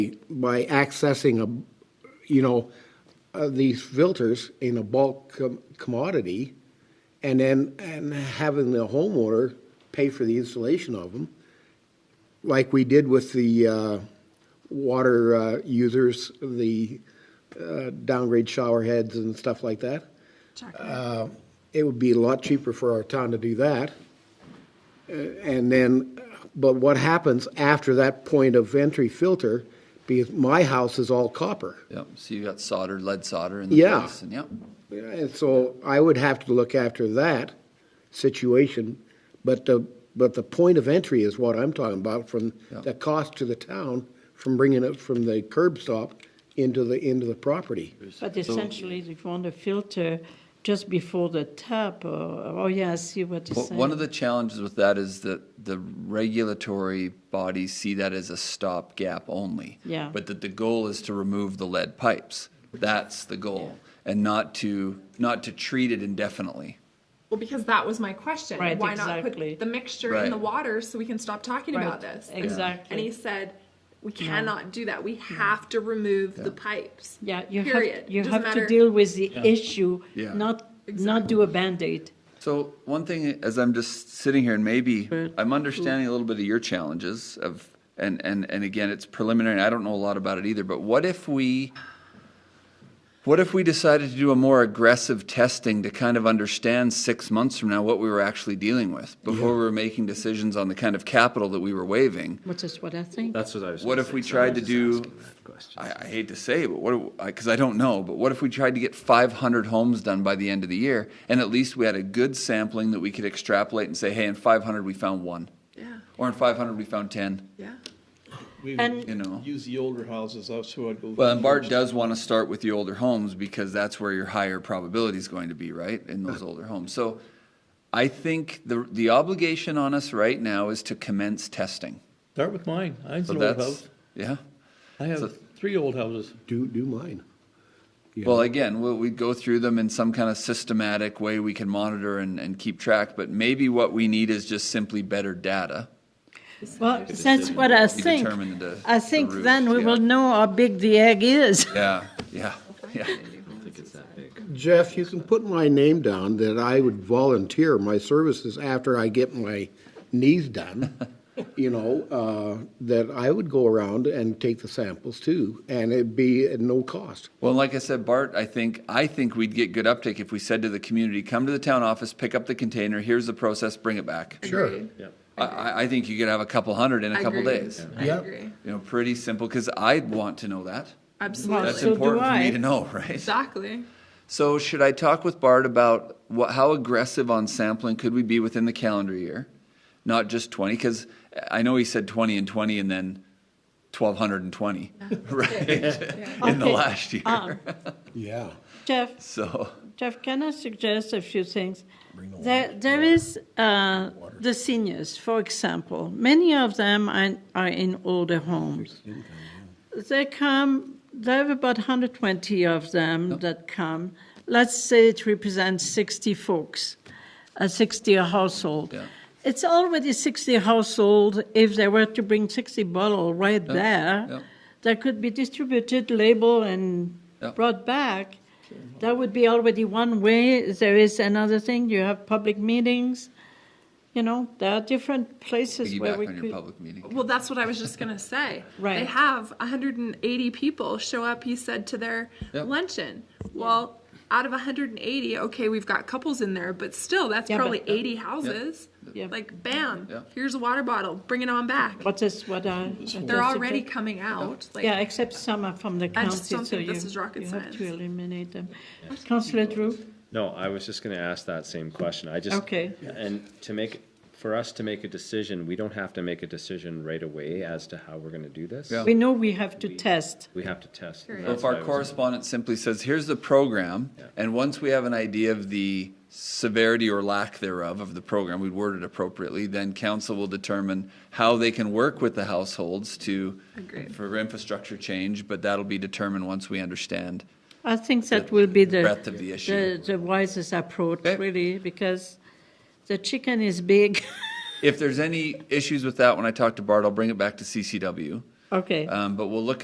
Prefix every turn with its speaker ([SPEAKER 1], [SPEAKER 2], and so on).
[SPEAKER 1] by accessing a, you know, uh, these filters in a bulk com- commodity, and then, and having the homeowner pay for the installation of them, like we did with the uh, water uh, users, the uh, downgrade shower heads and stuff like that. Uh, It would be a lot cheaper for our town to do that. Uh, And then, but what happens after that point of entry filter, because my house is all copper.
[SPEAKER 2] Yep, so you got solder, lead solder in the
[SPEAKER 1] Yeah.
[SPEAKER 2] place, and yep,
[SPEAKER 1] And so I would have to look after that situation, but the, but the point of entry is what I'm talking about, from
[SPEAKER 2] Yeah.
[SPEAKER 1] the cost to the town, from bringing it from the curb stop into the, into the property.
[SPEAKER 3] But essentially, they want to filter just before the tap, or, oh yeah, I see what you're
[SPEAKER 2] Well,
[SPEAKER 3] saying.
[SPEAKER 2] one of the challenges with that is that the regulatory bodies see that as a stopgap only.
[SPEAKER 3] Yeah.
[SPEAKER 2] But that the goal is to remove the lead pipes. That's the goal, and not to not to treat it indefinitely.
[SPEAKER 4] Well, because that was my question.
[SPEAKER 3] Right,
[SPEAKER 4] Why not
[SPEAKER 3] exactly.
[SPEAKER 4] put the mixture
[SPEAKER 2] Right.
[SPEAKER 4] in the water so we can stop talking
[SPEAKER 3] Right,
[SPEAKER 4] about this? And-
[SPEAKER 3] exactly.
[SPEAKER 4] And he said, we cannot do that. We have to remove the pipes.
[SPEAKER 3] Yeah, you
[SPEAKER 4] period.
[SPEAKER 3] have, you
[SPEAKER 4] Doesn't
[SPEAKER 3] have to
[SPEAKER 4] matter-
[SPEAKER 3] deal with the issue,
[SPEAKER 2] Yeah.
[SPEAKER 3] not, not do a Band-Aid.
[SPEAKER 2] So one thing, as I'm just sitting here, and maybe I'm understanding a little bit of your challenges of, and and and again, it's preliminary. and I don't know a lot about it either. But what if we, what if we decided to do a more aggressive testing to kind of understand six months from now what we were actually dealing with before we were making decisions on the kind of capital that we were waiving?
[SPEAKER 3] Which is what I think.
[SPEAKER 5] That's what I was.
[SPEAKER 2] What
[SPEAKER 5] gonna
[SPEAKER 2] if
[SPEAKER 5] say,
[SPEAKER 2] we
[SPEAKER 5] so I
[SPEAKER 2] tried
[SPEAKER 5] was
[SPEAKER 2] to
[SPEAKER 5] just
[SPEAKER 2] do?
[SPEAKER 5] asking that question.
[SPEAKER 2] I, I hate to say, it, but what? Because I don't know. But what if we tried to get 500 homes done by the end of the year, and at least we had a good sampling that we could extrapolate and say, hey, in 500 we found one,
[SPEAKER 4] Yeah,
[SPEAKER 2] or in 500 we found 10.
[SPEAKER 4] yeah.
[SPEAKER 6] We
[SPEAKER 3] And-
[SPEAKER 6] would
[SPEAKER 2] You know.
[SPEAKER 6] use the older houses, that's who I'd go.
[SPEAKER 2] Well, and Bart does want to start with the older homes because that's where your higher probability is going to be, right, in those older homes. So, I think the the obligation on us right now is to commence testing.
[SPEAKER 6] Start with mine, I have
[SPEAKER 2] So
[SPEAKER 6] an old house,
[SPEAKER 2] that's yeah.
[SPEAKER 6] I
[SPEAKER 2] so-
[SPEAKER 6] have three old houses.
[SPEAKER 1] Do, do mine.
[SPEAKER 2] Well, again, we'll, we go through them in some kind of systematic way we can monitor and, and keep track, but maybe what we need is just simply better data.
[SPEAKER 3] Well, that's what I think.
[SPEAKER 2] determine the-
[SPEAKER 3] I
[SPEAKER 2] the
[SPEAKER 3] think
[SPEAKER 2] root,
[SPEAKER 3] then we
[SPEAKER 2] yeah.
[SPEAKER 3] will know how big the egg is.
[SPEAKER 2] Yeah, yeah, yeah.
[SPEAKER 1] Jeff, you can put my name down that I would volunteer my services after I get my knees done. You know, uh, that I would go around and take the samples too, and it'd be at no cost.
[SPEAKER 2] Well, like I said, Bart, I think, I think we'd get good uptake if we said to the community, come to the town office, pick up the container, here's the process, bring it back.
[SPEAKER 1] Sure.
[SPEAKER 2] I, I, I think you could have a couple hundred in a couple days.
[SPEAKER 4] I
[SPEAKER 1] Yeah.
[SPEAKER 4] agree.
[SPEAKER 2] You know, pretty simple, because I'd want to know that.
[SPEAKER 4] Absolutely.
[SPEAKER 2] That's
[SPEAKER 3] so do
[SPEAKER 2] important for
[SPEAKER 3] I.
[SPEAKER 2] me to know, right?
[SPEAKER 4] Exactly.
[SPEAKER 2] So should I talk with Bart about what, how aggressive on sampling could we be within the calendar year? Not just 20, because I know he said 20 and 20 and then 1,220, right? In the
[SPEAKER 3] Okay. um,
[SPEAKER 2] last year.
[SPEAKER 1] Yeah.
[SPEAKER 3] Jeff,
[SPEAKER 2] so,
[SPEAKER 3] Jeff, can I suggest a few things? There, there is uh, the seniors, for example. Many of them are, are in older homes. They come. There are about 120 of them that come. Let's say it represents 60 folks, uh, 60 a household.
[SPEAKER 2] Yeah.
[SPEAKER 3] It's already 60 household. If they were to bring 60 bottle right there,
[SPEAKER 2] yeah.
[SPEAKER 3] that could be distributed, labeled, and
[SPEAKER 2] Yeah.
[SPEAKER 3] brought back. That would be already one way. There is another thing. You have public meetings. You know, there are different places where
[SPEAKER 2] piggyback
[SPEAKER 3] we
[SPEAKER 2] on your
[SPEAKER 3] could.
[SPEAKER 2] public meeting.
[SPEAKER 4] Well, that's what I was just going to say.
[SPEAKER 3] Right.
[SPEAKER 4] They have 180 people show up, he said, to their
[SPEAKER 2] Yep.
[SPEAKER 4] luncheon. Well, out of 180, okay, we've got couples in there, but still, that's
[SPEAKER 3] Yeah, but-
[SPEAKER 4] probably 80 houses.
[SPEAKER 3] Yeah.
[SPEAKER 4] Like, bam,
[SPEAKER 2] Yeah.
[SPEAKER 4] here's a water bottle, bring it on back.
[SPEAKER 3] What is what I?
[SPEAKER 4] They're already coming out. Like,
[SPEAKER 3] Yeah, except some are from the
[SPEAKER 4] I
[SPEAKER 3] county,
[SPEAKER 4] just don't
[SPEAKER 3] so
[SPEAKER 4] think
[SPEAKER 3] you,
[SPEAKER 4] this is rocket
[SPEAKER 3] you have to
[SPEAKER 4] science.
[SPEAKER 3] eliminate them. Councillor Drew,
[SPEAKER 5] No, I was just gonna ask that same question. I just.
[SPEAKER 3] Okay.
[SPEAKER 5] And to make, for us to make a decision, we don't have to make a decision right away as to how we're gonna do this.
[SPEAKER 2] Yeah.
[SPEAKER 3] we know we have to test.
[SPEAKER 5] We have to test. and
[SPEAKER 4] Period.
[SPEAKER 2] So
[SPEAKER 5] that's
[SPEAKER 2] if
[SPEAKER 5] why
[SPEAKER 2] our
[SPEAKER 5] I was-
[SPEAKER 2] correspondent simply says, here's the program, and once we have an idea of the severity or lack thereof of the program, we word it appropriately, then council will determine how they can work with the households to,
[SPEAKER 4] Agreed.
[SPEAKER 2] for infrastructure change, but that'll be determined once we understand.
[SPEAKER 3] I think that will be the
[SPEAKER 2] breadth of the issue.
[SPEAKER 3] the, the wisest approach,
[SPEAKER 2] Okay.
[SPEAKER 3] really, because the chicken is big.
[SPEAKER 2] If there's any issues with that, when I talk to Bart, I'll bring it back to CCW.
[SPEAKER 3] okay.
[SPEAKER 2] Um, but we'll look